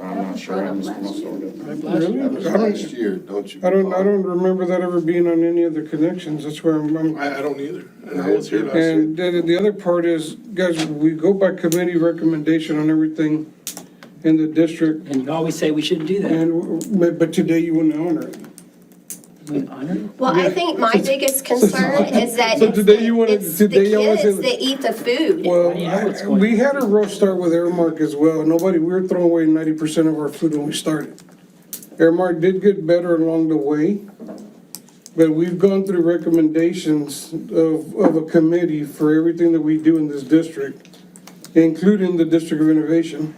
I'm sure I missed one Right, over last Really? year. That was last year, don't you? I don't, I recall? don't remember that ever being on any of the connections, that's where I'm, I'm. I, I don't either. And I was here last year. And then the other part is, guys, we go by committee recommendation on everything in the district, And you always say we shouldn't do that. and, but but today you wouldn't honor it. We honor. Well, I think my biggest concern is that So it's today you the, wanna- it's the today y'all wanna kids say- that eat the food. Well, Yeah, I- it's going- we had a rough start with Airmark as well. Nobody, we were throwing away ninety percent of our food when we started. Airmark did get better along the way, but we've gone through recommendations of, of a committee for everything that we do in this district, including the District of Innovation.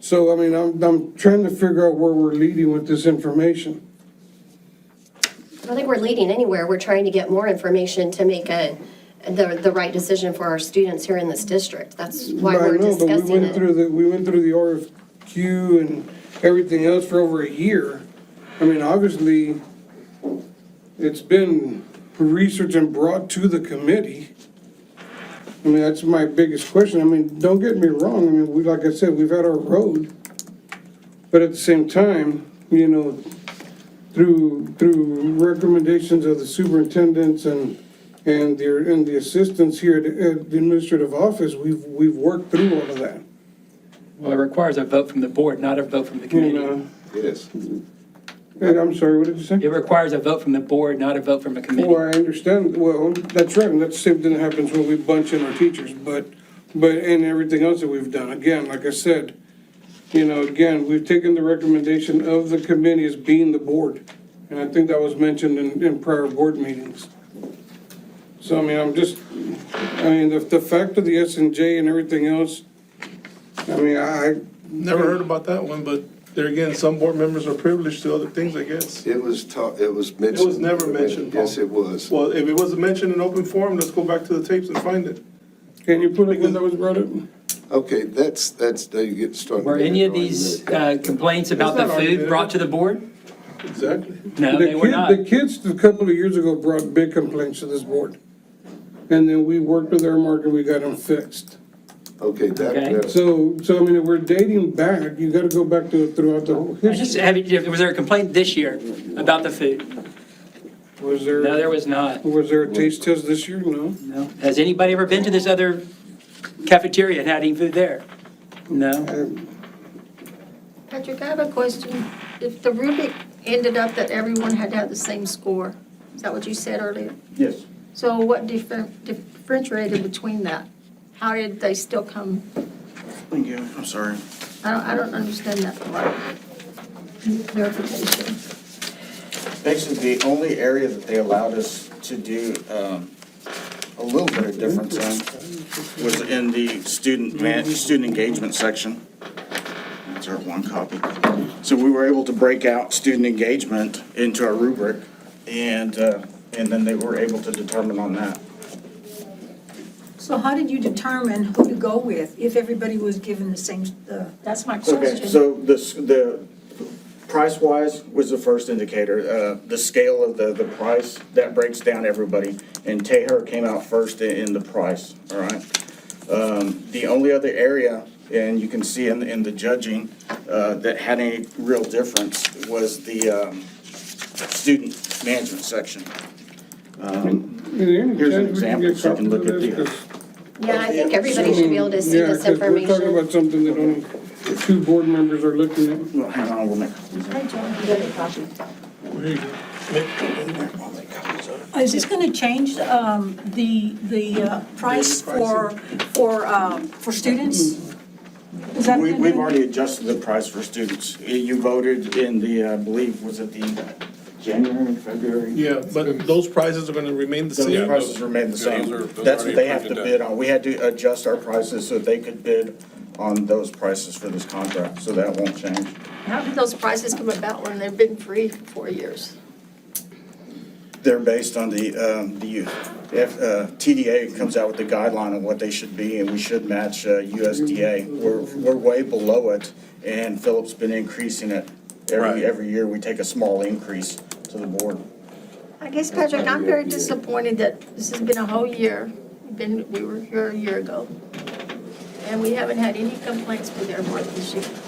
So, I mean, I'm, I'm trying to figure out where we're leading with this information. I don't think we're leading anywhere. We're trying to get more information to make a, the, the right decision for our students here in this district. That's why But I we're know, but we discussing went through it. the We went through the RFQ and everything else for over a year. I mean, obviously, it's been researched and brought to the committee. I mean, that's my biggest question. I mean, don't get me wrong, I mean, we, like I said, we've had our road. But at the same time, you know, through, through recommendations of the superintendents and, and the, and the assistants here at at the administrative office, we've, we've worked through all of that. Well, it requires a vote from the board, not a vote from the You committee. uh, know, Yes. And I'm sorry, what did you say? It requires a vote from the board, not a vote from a Well, committee. I understand, well, that's right, and that's the same thing that happens when we bunch in our teachers, but, but, and everything else that we've done, again, like I said, you know, again, we've taken the recommendation of the committee as being the board, and I think that was mentioned in, in prior board meetings. So, I mean, I'm just, I mean, the, the fact of the S and J and everything else, I mean, I, Never heard about that one, but there again, some board members are privileged to other things, I guess. It was ta, it was mentioned. It was never mentioned, Paul. Yes, it was. Well, if it wasn't mentioned in open forum, let's go back to the tapes and find it. can you put it when that was brought up? Okay, that's, that's, now you get started. Were any of these uh, complaints about the It's not food argument. brought to the board? Exactly. No, The they were kid- not. The kids, a couple of years ago, brought big complaints to this board. And then we worked with Airmark and we got them fixed. Okay, that, Okay. that, So, so I mean, if we're dating back, you gotta go back to throughout the whole I just, history. have you- was there a complaint this year about the food? Was No, there there, was not. was there a taste test this year? No. No. Has anybody ever been to this other cafeteria and had any food there? No. Patrick, I have a question. If the rubric ended up that everyone had to have the same score, is that what you said earlier? Yes. So what differ- differentiated between that? How did they still come? Thank you, I'm sorry. I don't, I don't understand that part. Clarification. Basically, the only area that they allowed us to do um, a little bit of difference in was in the student man, student engagement section. That's our one copy. So we were able to break out student engagement into a rubric, and, uh, and then they were able to determine on that. So how did you determine who to go with if everybody was given the same, uh, that's my question. Okay, so the, s- the price wise was the first indicator, uh, the scale of the, the price, that breaks down everybody. And Teher came out first i- in the price, all right? Um, the only other area, and you can see in, in the judging, uh, that had any real difference was the, um, student management section. Here's an example, so you can look at the- Yeah, I think everybody should be able to see this We're talking information. about something that only two board members are looking at. Well, hang on, we'll make. Is this going to change um, the, the uh, price for, for, um, for students? Is that We, gonna- we've already adjusted the price for students. You voted in the, uh, I believe, was it the January, February? Yeah, but those prizes are gonna remain the Those same. prices remain the same. That's what they have to bid on. We had to adjust our prices so they could bid on those prices for this contract, so that won't change. How did those prices come about when they've been free for four years? They're based on the, um, the, if, uh, TDA comes out with the guideline on what they should be, and we should match uh, USDA. We're, we're way below it, and Philip's been increasing it. Right. Every, every year, we take a small increase to the board. I guess, Patrick, I'm very disappointed that this has been a whole year, been, we were here a year ago, and we haven't had any complaints with Airmark this year.